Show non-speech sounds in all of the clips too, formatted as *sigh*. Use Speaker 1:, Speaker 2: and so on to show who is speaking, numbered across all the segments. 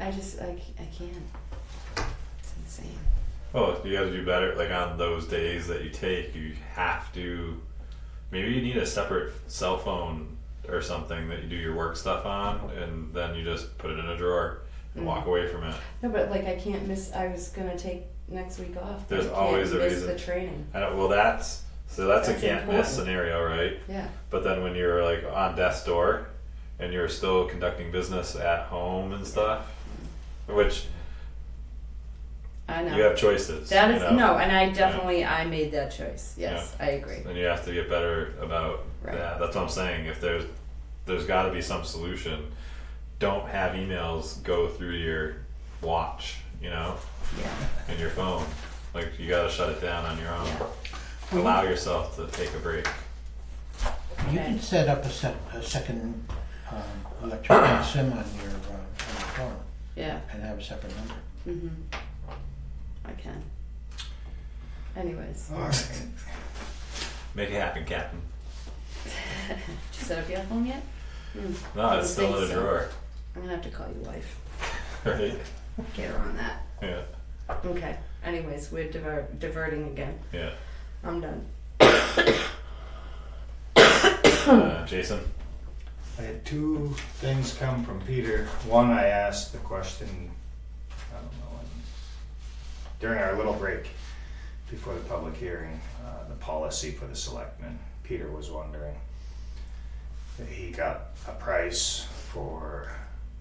Speaker 1: I just I c- I can't. It's insane.
Speaker 2: Oh, you gotta do better. Like on those days that you take, you have to. Maybe you need a separate cell phone or something that you do your work stuff on, and then you just put it in a drawer and
Speaker 1: Mm.
Speaker 2: walk away from it.
Speaker 1: No, but like I can't miss. I was gonna take next week off. but
Speaker 2: There's
Speaker 1: I can't
Speaker 2: always a
Speaker 1: miss
Speaker 2: reason.
Speaker 1: The training.
Speaker 2: I don't, well, that's so that's,
Speaker 1: That's
Speaker 2: a can't miss
Speaker 1: important.
Speaker 2: scenario, right?
Speaker 1: Yeah.
Speaker 2: But then when you're like on death's door, and you're still conducting business at home and stuff, which
Speaker 1: I know.
Speaker 2: you have choices.
Speaker 1: that
Speaker 2: you
Speaker 1: is
Speaker 2: know?
Speaker 1: no, and I definitely I made that choice. Yes, I agree.
Speaker 2: and you have to get better about
Speaker 1: Right.
Speaker 2: that. That's what I'm saying. If there's there's got to be some solution. Don't have emails go through your watch, you know,
Speaker 1: Yeah.
Speaker 2: and your phone. Like you got to shut it down on your own.
Speaker 1: Yeah.
Speaker 2: Allow yourself to take a break.
Speaker 3: You
Speaker 1: Okay.
Speaker 3: can set up a sec a second, um, electronic SIM on your, uh, on your phone
Speaker 1: Yeah.
Speaker 3: and have a separate number.
Speaker 1: Mm-hmm. I can. Anyways,
Speaker 2: Make it happen, Captain.
Speaker 1: *laughs* did you set up your phone yet?
Speaker 2: No, it's still in a
Speaker 1: Thanks, sir. *laughs*
Speaker 2: drawer,
Speaker 1: I'm gonna have to call your wife.
Speaker 2: right?
Speaker 1: Get her on that.
Speaker 2: Yeah,
Speaker 1: Okay. Anyways, we're diver- diverting again. *clears throat*
Speaker 2: yeah.
Speaker 1: I'm done.
Speaker 2: Uh, Jason.
Speaker 4: I had two things come from Peter. One, I asked the question, I don't know, when, during our little break before the public hearing, uh, the policy for the selectmen. Peter was wondering. He got a price for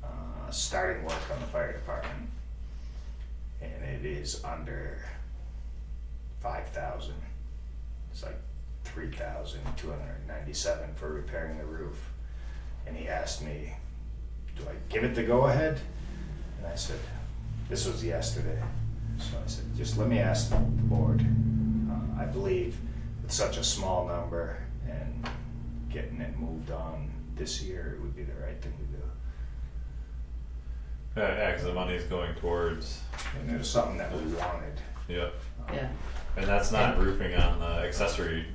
Speaker 4: uh, starting work on the fire department, and it is under five thousand. It's like three thousand two hundred ninety-seven for repairing the roof and he asked me, "Do I give it the go-ahead?" And I said, "This was yesterday." So I said, "Just let me ask the board." Uh, I believe with such a small number and getting it moved on this year, it would be the right thing to do.
Speaker 2: Yeah, Uh, yeah, 'cause the money's going towards.
Speaker 4: And it was something that we wanted.
Speaker 2: Yeah,
Speaker 4: Um,
Speaker 1: Yeah.
Speaker 2: and that's not roofing on the accessory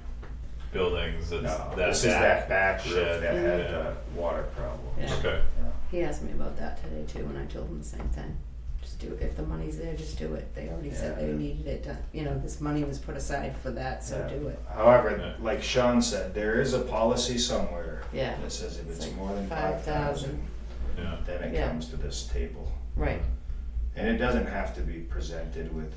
Speaker 2: buildings. It's
Speaker 4: No,
Speaker 2: that
Speaker 4: Uh, this is
Speaker 2: back
Speaker 4: that back roof
Speaker 2: shed,
Speaker 4: that had
Speaker 2: yeah.
Speaker 4: the water problem.
Speaker 1: Yeah.
Speaker 2: Okay.
Speaker 4: Yeah.
Speaker 1: He asked me about that today too, and I told him the same thing. Just do if the money's there, just do it. They already said they
Speaker 4: Yeah.
Speaker 1: needed it done. You know, this money was put aside for that, so
Speaker 4: Yeah.
Speaker 1: do it.
Speaker 4: However,
Speaker 2: Yeah.
Speaker 4: like Sean said, there is a policy somewhere
Speaker 1: Yeah.
Speaker 4: that says if
Speaker 1: It's
Speaker 4: it's
Speaker 1: like
Speaker 4: more than
Speaker 1: 5,000.
Speaker 4: 5,000,
Speaker 2: Yeah.
Speaker 4: then it
Speaker 1: Yeah.
Speaker 4: comes to this table.
Speaker 1: Right.
Speaker 4: And it doesn't have to be presented with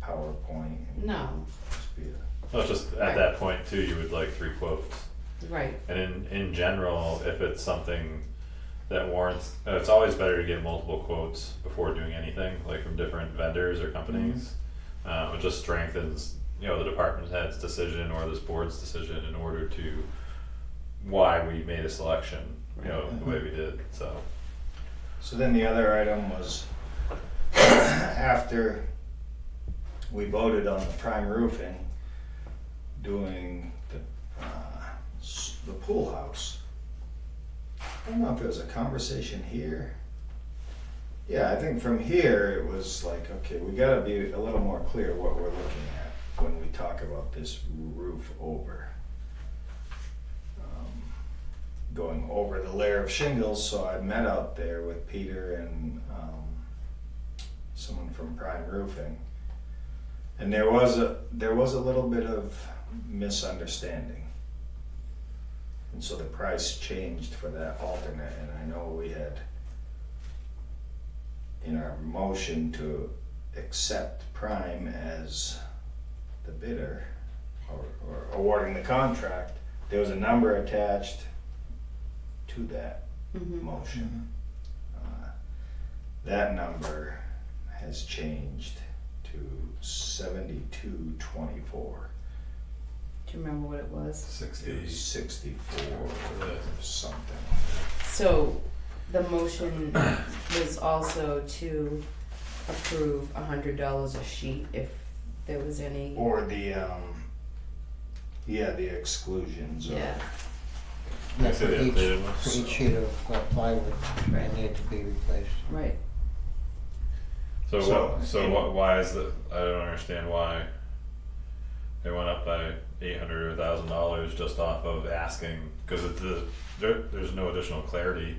Speaker 4: PowerPoint and
Speaker 1: No.
Speaker 4: just be a,
Speaker 2: Well, it's just
Speaker 1: Right.
Speaker 2: at that point too, you would like three quotes.
Speaker 1: Right.
Speaker 2: And in, in general, if it's something that warrants, uh, it's always better to get multiple quotes before doing anything, like from different vendors or companies.
Speaker 4: Mm-hmm.
Speaker 2: Um, it just strengthens, you know, the department head's decision or this board's decision in order to why we made a selection, you know, the way we did, so.
Speaker 4: so then the other item was *coughs* after we voted on the prime roofing, doing the, uh, s- the pool house. I don't know if it was a conversation here. Yeah, I think from here, it was like, okay, we gotta be a little more clear what we're looking at when we talk about this roof over. Um, Going over the layer of shingles, so I met out there with Peter and, um, someone from Prime Roofing. And there was a, there was a little bit of misunderstanding. And so the price changed for that alternate, and I know we had in our motion to accept Prime as the bidder or, or awarding the contract, there was a number attached to that
Speaker 1: Mm-hmm.
Speaker 4: motion. Uh, That number has changed to seventy-two twenty-four.
Speaker 1: Do you remember what it was?
Speaker 4: It was sixty-four or something.
Speaker 1: So the motion *coughs* was also to approve a hundred dollars a sheet if there was any.
Speaker 4: Or the, um, yeah, the exclusions or,
Speaker 1: Yeah.
Speaker 2: Can I
Speaker 3: That's
Speaker 2: see
Speaker 3: for
Speaker 2: the
Speaker 3: each,
Speaker 2: updated one?
Speaker 3: for each sheet of uh, plywood
Speaker 1: Right.
Speaker 3: that needed to be replaced.
Speaker 1: Right.
Speaker 2: So
Speaker 4: So,
Speaker 2: what, so
Speaker 4: in-
Speaker 2: what, why is the, I don't understand why it went up by eight hundred or thousand dollars just off of asking, cause it, the, there, there's no additional clarity.